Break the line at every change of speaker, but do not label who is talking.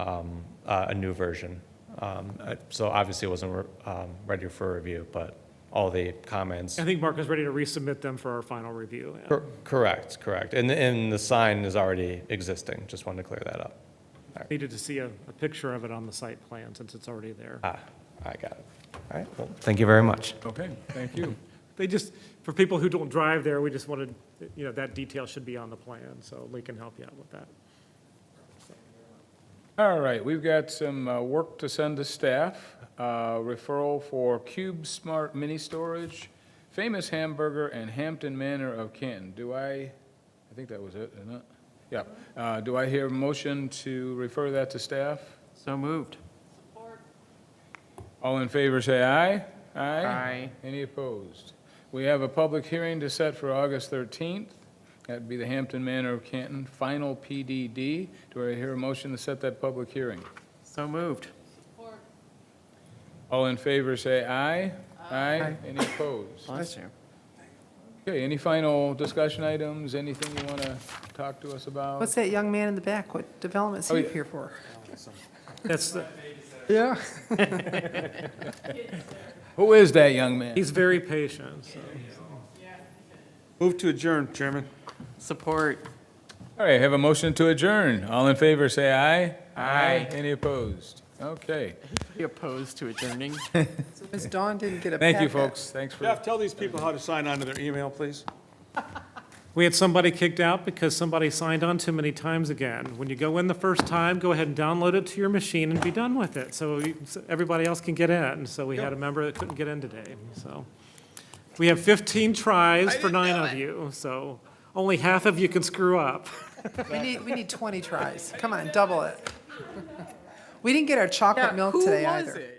um, uh, a new version. Um, I- So obviously, it wasn't re- um, ready for review, but all the comments.
I think Mark is ready to resubmit them for our final review. yeah.
Cor- Correct, correct. And, and the sign is already existing, just wanted to clear that up.
Needed to see a, a picture of it on the site plan since it's already there.
Ah, I got it. All right, well, thank you very much.
Okay, thank you.
They just, for people who don't drive there, we just wanted, you know, that detail should be on the plan, so Lee can help you out with that.
All right, we've got some uh, work to send to staff. Uh, Referral for Cube Smart Mini Storage, Famous Hamburger, and Hampton Manor of Canton. Do I, I think that was it, isn't it? Yeah. Uh, Do I hear a motion to refer that to staff?
So moved.
All in favor, say aye. Aye. Any opposed? We have a public hearing to set for August 13th. That'd be the Hampton Manor of Canton, final PDD. Do I hear a motion to set that public hearing?
So moved.
All in favor, say aye. Aye. Any opposed?
Bless you.
Okay, any final discussion items, anything you want to talk to us about?
What's that young man in the back? What development's
Oh,
he
yeah.
here for?
That's, the-
Yeah.
Who is that young man?
he's very patient, so.
Move to adjourn, Chairman.
Support.
All right, have a motion to adjourn. All in favor, say aye. Aye. Any opposed? Okay,
He opposed to adjourning. So Ms. Dawn didn't get a
thank you,
packet.
folks. Thanks for.
Jeff, tell these people how to sign on to their email, please.
We had somebody kicked out because somebody signed on too many times again. When you go in the first time, go ahead and download it to your machine and be done with it, so you- so everybody else can get in. So we had a member that couldn't get in today, so. We have 15 tries for nine of you, so only half of you can screw up.
We need, we need 20 tries. Come on, double it. We didn't get our chocolate milk today either.